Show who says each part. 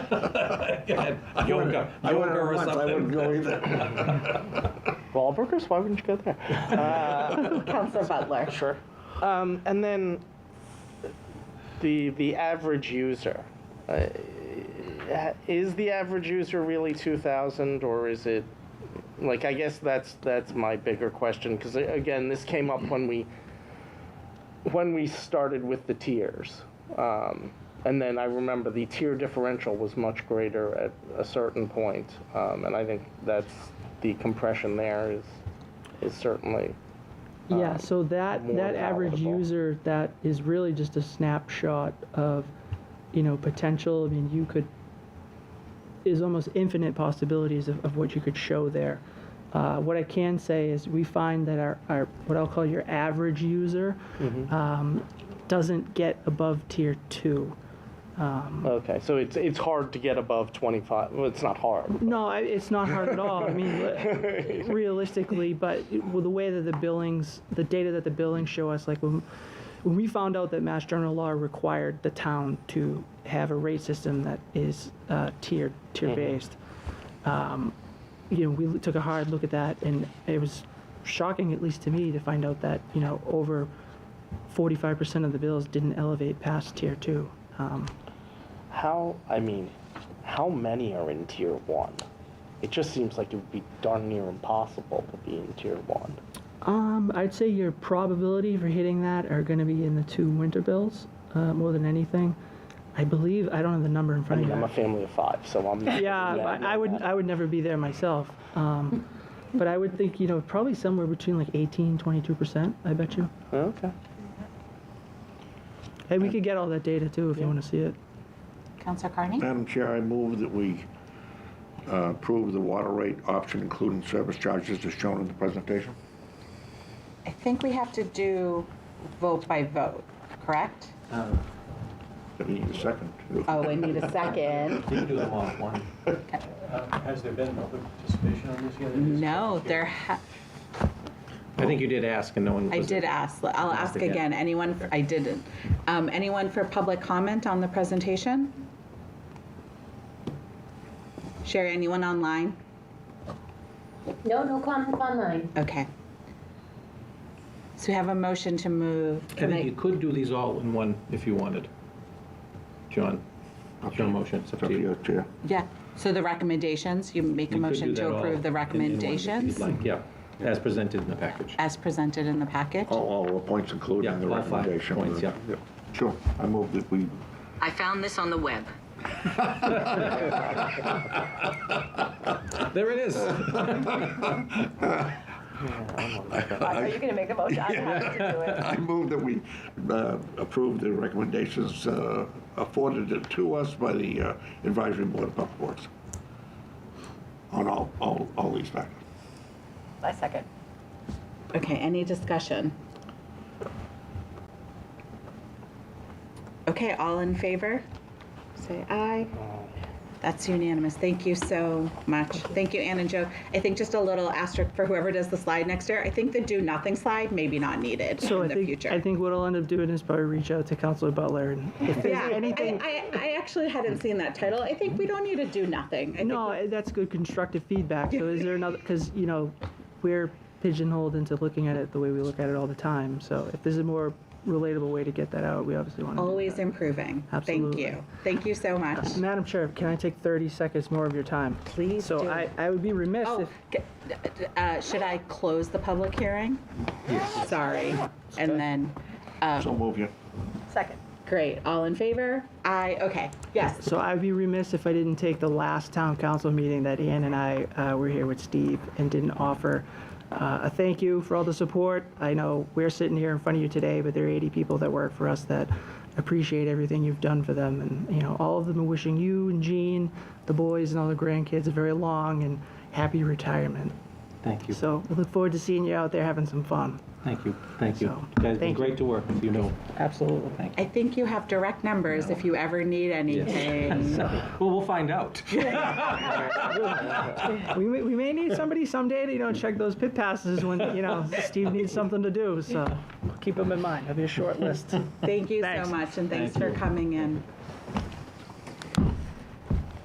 Speaker 1: I
Speaker 2: went-
Speaker 1: yoga,
Speaker 2: I went
Speaker 1: yoga
Speaker 2: there
Speaker 1: or
Speaker 2: once, I wouldn't
Speaker 1: something.
Speaker 2: go either.
Speaker 3: Wahlburgers? Why wouldn't you go there? Uh,
Speaker 4: Counselor Butler.
Speaker 3: sure. Um, and then the the average user uh, is the average user really two thousand or is it like I guess that's that's my bigger question because again this came up when we when we started with the tiers. Um, and then I remember the tier differential was much greater at a certain point, um, and I think that's the compression there is is certainly
Speaker 5: Yeah, so that,
Speaker 3: uh, more
Speaker 5: that average
Speaker 3: palatable.
Speaker 5: user, that is really just a snapshot of, you know, potential. I mean, you could, is almost infinite possibilities of, of what you could show there. Uh, what I can say is we find that our, our what I'll call your average user
Speaker 3: Mm-hmm.
Speaker 5: um, doesn't get above tier two.
Speaker 3: Okay, so it's it's hard to get above 25. Well, it's not hard.
Speaker 5: No, I- it's not hard at all. I mean, li- realistically, but it- well, the way that the billings, the data that the billings show us, like when, when we found out that Mass General Law required the town to have a rate system that is uh, tiered, tier based. Um, you know, we took a hard look at that, and it was shocking, at least to me, to find out that you know over 45% of the bills didn't elevate past tier two. Um,
Speaker 3: How I mean, how many are in tier one? It just seems like it would be darn near impossible to be in tier one.
Speaker 5: Um, I'd say your probability for hitting that are going to be in the two winter bills uh, more than anything. I believe I don't have the number in
Speaker 3: I
Speaker 5: front
Speaker 3: mean, I'm a
Speaker 5: of me.
Speaker 3: family of five, so I'm. not
Speaker 5: Yeah,
Speaker 3: really mad
Speaker 5: I, I
Speaker 3: at
Speaker 5: would
Speaker 3: that.
Speaker 5: I would never be there myself. Um, but I would think you know probably somewhere between like 18, 22 percent. I bet you.
Speaker 3: Okay.
Speaker 5: Hey, we could get all that data too if you want to see it.
Speaker 4: Counselor Carney?
Speaker 2: Madam Chair, I move that we uh, approve the water rate option, including service charges as shown in the presentation.
Speaker 4: I think we have to do vote by vote, correct?
Speaker 2: I need a second.
Speaker 4: Oh, I need a second.
Speaker 6: You can do them all at once. Uh, Has there been public participation on this yet?
Speaker 4: No, there, ha-
Speaker 1: I think you did ask and no one
Speaker 4: I
Speaker 1: was
Speaker 4: did ask, I'll ask
Speaker 1: again.
Speaker 4: again, anyone, I didn't. Um, Anyone for public comment on the presentation? Sherry, anyone online?
Speaker 7: No, no comments online.
Speaker 4: Okay. So we have a motion to move.
Speaker 1: I think you could do these all in one if you wanted. John, it's your motion, it's up
Speaker 2: It's up
Speaker 1: to
Speaker 2: to
Speaker 1: you.
Speaker 2: you, Chair.
Speaker 4: Yeah, so the recommendations, you make a
Speaker 1: You could do
Speaker 4: motion
Speaker 1: that
Speaker 4: to
Speaker 1: all
Speaker 4: approve the
Speaker 1: in- in one if you'd
Speaker 4: recommendations
Speaker 1: like, Yeah, as presented in the package.
Speaker 4: as presented in the package?
Speaker 2: All, Oh, all the points included
Speaker 1: Yeah,
Speaker 2: in the
Speaker 1: all five
Speaker 2: recommendation.
Speaker 1: points, yeah.
Speaker 2: Sure, I move that we,
Speaker 8: I found this on the web.
Speaker 4: Uh,
Speaker 1: There it is.
Speaker 9: Are you going to make the motion? I'm happy to do it.
Speaker 2: I move that we uh, approve the recommendations uh, afforded to us by the uh, Advisory Board of Public Works on all, all, all these factors.
Speaker 9: I second.
Speaker 4: Okay, any discussion? Okay, all in favor? Say aye. That's unanimous. Thank you so much. Thank you, Ann and Joe. I think just a little asterisk for whoever does the slide next year. I think the do nothing slide may be not needed
Speaker 5: So
Speaker 4: in
Speaker 5: I
Speaker 4: the
Speaker 5: think I
Speaker 4: future.
Speaker 5: think what I'll end up doing is probably reach out to Councilor Butler and if there's
Speaker 4: Yeah,
Speaker 5: anything.
Speaker 4: I, I, I actually hadn't seen that title. I think we don't need to do nothing. I think
Speaker 5: No, eh, that's good constructive feedback. So is there another, because, you know, we're pigeonholed into looking at it the way we look at it all the time. So if there's a more relatable way to get that out, we obviously want to.
Speaker 4: Always improving. Thank
Speaker 5: Absolutely.
Speaker 4: you. Thank you so much.
Speaker 5: Madam Chair, can I take 30 seconds more of your time?
Speaker 4: Please
Speaker 5: So
Speaker 4: do.
Speaker 5: I, I would be remiss
Speaker 4: Oh,
Speaker 5: if,
Speaker 4: c- uh, should I close the public hearing? Yes. Sorry. And then,
Speaker 2: So move you.
Speaker 9: Second.
Speaker 4: great, all in favor? Aye, okay, yes.
Speaker 5: so I'd be remiss if I didn't take the last town council meeting that Ian and I uh, were here with Steve and didn't offer uh, a thank you for all the support. I know we're sitting here in front of you today, but there are 80 people that work for us that appreciate everything you've done for them. And, you know, all of them are wishing you and Jean, the boys and all the grandkids a very long and happy retirement.
Speaker 6: Thank you.
Speaker 5: So we look forward to seeing you out there having some fun.
Speaker 6: Thank you. Thank you.
Speaker 5: So,
Speaker 6: Guys, it's been
Speaker 5: thank you.
Speaker 6: great to work with you. know.
Speaker 5: Absolutely.
Speaker 4: I think you have direct numbers if you ever need anything.
Speaker 1: Well, we'll find out.
Speaker 5: We may, we may need somebody someday to, you know, check those pit passes when, you know, Steve needs something to do, so keep them in mind, have your short list.
Speaker 4: Thank you so
Speaker 5: Thanks.
Speaker 4: much, and thanks for coming in.